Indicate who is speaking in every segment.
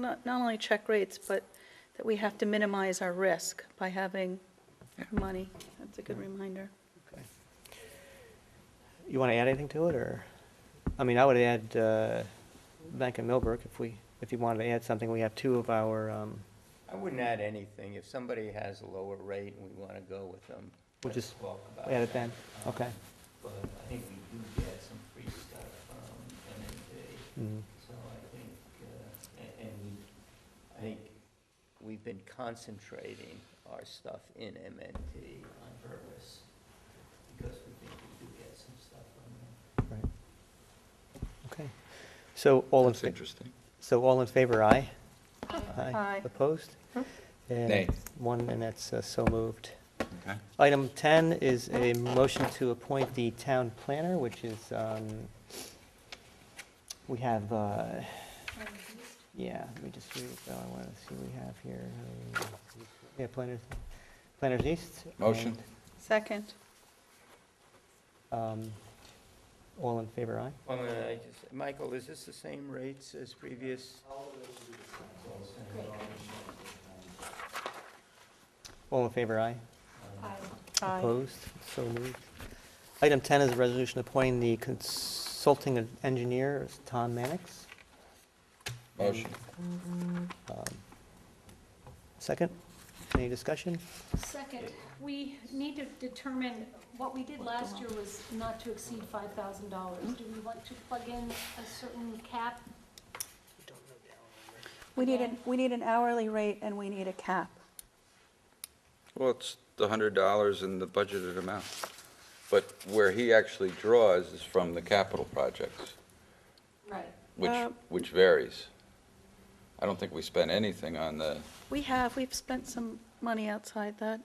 Speaker 1: not, not only check rates, but that we have to minimize our risk by having money. That's a good reminder.
Speaker 2: You want to add anything to it, or, I mean, I would add uh, Bank of Millbrook if we, if you wanted to add something. We have two of our, um,
Speaker 3: I wouldn't add anything. If somebody has a lower rate and we want to go with them.
Speaker 2: We'll
Speaker 3: let's
Speaker 2: just
Speaker 3: talk about
Speaker 2: add it
Speaker 3: that.
Speaker 2: then, okay.
Speaker 3: But I think we do get some free stuff from MMD,
Speaker 2: Mm.
Speaker 3: so I think, uh, a- and we, I think we've been concentrating our stuff in MNT on purpose because we think we do get some stuff from them.
Speaker 2: right. Okay. So all in,
Speaker 4: That's
Speaker 2: fa-
Speaker 4: interesting.
Speaker 2: so all in favor, aye?
Speaker 1: Aye.
Speaker 2: Opposed? And
Speaker 4: Nay.
Speaker 2: One, and that's uh, so moved.
Speaker 4: Okay.
Speaker 2: Item 10 is a motion to appoint the town planner, which is, um, we have, uh, yeah, let me just see, what I want to see what we have here. Um, Yeah, planners, planners east.
Speaker 4: Motion.
Speaker 1: Second.
Speaker 2: and, um, All in favor, aye?
Speaker 3: Well, I'm gonna- I just, Michael, is this the same rates as previous?
Speaker 2: All in favor, aye?
Speaker 1: Aye.
Speaker 2: Opposed? So moved. Item 10 is a resolution appointing the consulting engineer, Tom Mannix.
Speaker 4: Motion.
Speaker 2: Um, Second, any discussion?
Speaker 5: Second, we need to determine, what we did last year was not to exceed five thousand dollars.
Speaker 2: Hmm?
Speaker 5: Do we want to plug in a certain cap?
Speaker 1: We need an, we need an hourly rate and we need a cap.
Speaker 4: Well, it's the hundred dollars in the budgeted amount. But where he actually draws is from the capital projects,
Speaker 5: Right.
Speaker 4: which,
Speaker 1: Um,
Speaker 4: which varies. I don't think we spent anything on the,
Speaker 1: We have, we've spent some money outside that.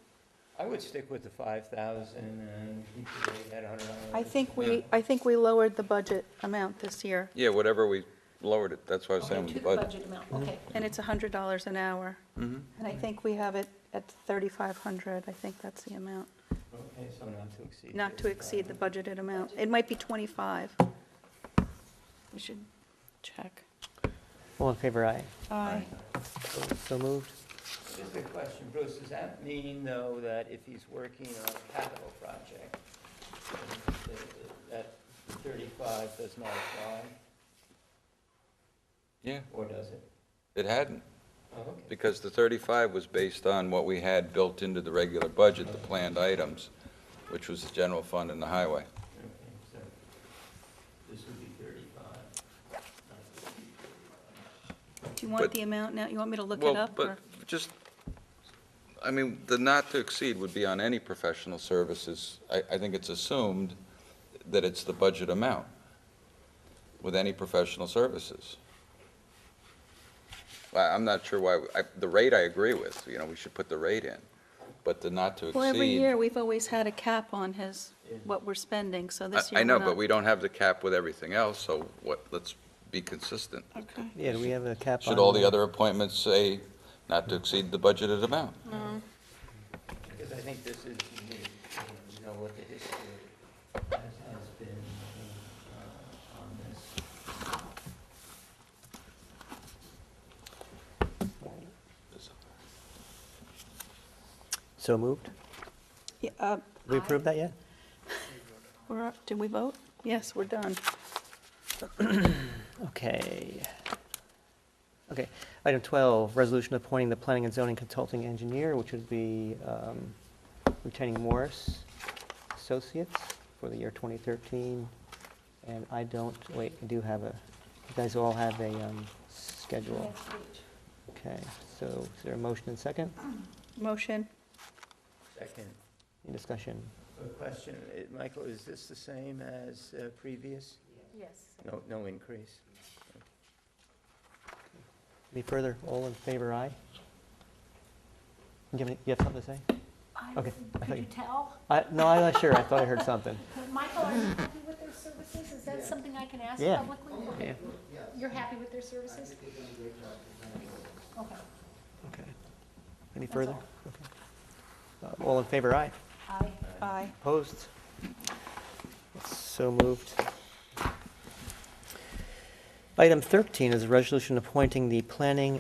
Speaker 3: I would stick with the five thousand and keep the rate at a hundred dollars.
Speaker 1: I think we, I think we lowered the budget amount this year,
Speaker 4: yeah, whatever we lowered it, that's why I was saying
Speaker 5: Okay,
Speaker 4: with
Speaker 5: to
Speaker 4: Oh, the
Speaker 5: the
Speaker 4: budget.
Speaker 5: budget
Speaker 2: Hmm?
Speaker 5: amount, okay.
Speaker 1: and it's $100 an hour.
Speaker 4: Mhm.
Speaker 1: And I think we have it at 3,500. I think that's the amount,
Speaker 3: Okay, so not to exceed.
Speaker 1: not to exceed the budgeted amount. It might be 25. We should check.
Speaker 2: All in favor, aye?
Speaker 1: Aye.
Speaker 2: So moved.
Speaker 3: Just a question, Bruce, does that mean, though, that if he's working on a capital project, that thirty-five does not apply,
Speaker 4: Yeah,
Speaker 3: or does it?
Speaker 4: it hadn't,
Speaker 3: Oh, okay.
Speaker 4: because the thirty-five was based on what we had built into the regular budget, the planned items, which was the general fund and the highway.
Speaker 3: Okay, so this would be thirty-five.
Speaker 1: Do you want
Speaker 4: But-
Speaker 1: the amount now? You want me to look it
Speaker 4: Well,
Speaker 1: up? or-
Speaker 4: But just, I mean, the not to exceed would be on any professional services. I, I think it's assumed that it's the budget amount with any professional services. I, I'm not sure why, I, the rate I agree with, you know, we should put the rate in, but the not to exceed.
Speaker 1: Well, every year, we've always had a cap on his, what we're spending, so
Speaker 4: I,
Speaker 1: this year
Speaker 4: I
Speaker 1: we're
Speaker 4: know,
Speaker 1: not.
Speaker 4: but we don't have the cap with everything else, so what, let's be consistent.
Speaker 1: Okay.
Speaker 2: Yeah, do we have a cap on?
Speaker 4: Should all the other appointments say not to exceed the budgeted amount?
Speaker 3: Because I think this is unique, and you know what the history has, has been uh, on this.
Speaker 2: So moved.
Speaker 1: Yeah, uh,
Speaker 2: Did we approve that yet?
Speaker 1: we're, did we vote? Yes, we're done.
Speaker 2: Okay. Okay, item 12, resolution appointing the planning and zoning consulting engineer, which would be um, retaining Morris Associates for the year 2013. And I don't, wait, I do have a, you guys all have a um, schedule.
Speaker 5: Next page.
Speaker 2: Okay, so is there a motion and second?
Speaker 1: Motion,
Speaker 3: Second,
Speaker 2: Any discussion?
Speaker 3: a question, eh, Michael, is this the same as uh, previous?
Speaker 5: Yes.
Speaker 3: No, no increase?
Speaker 2: Any further? All in favor, aye? You have any- you have something to say?
Speaker 5: I-
Speaker 2: Okay, I thought
Speaker 5: Could you
Speaker 2: you-
Speaker 5: tell?
Speaker 2: I, no, I'm not sure, I thought I heard something.
Speaker 5: Michael, are you happy with their services? Is that something I can ask
Speaker 2: Yeah.
Speaker 5: publicly?
Speaker 2: Yeah,
Speaker 5: You're happy with their services? Okay.
Speaker 2: okay. Any further? Okay. Uh, All in favor, aye?
Speaker 5: Aye.
Speaker 1: aye.
Speaker 2: Opposed? So moved. Item 13 is a resolution appointing the planning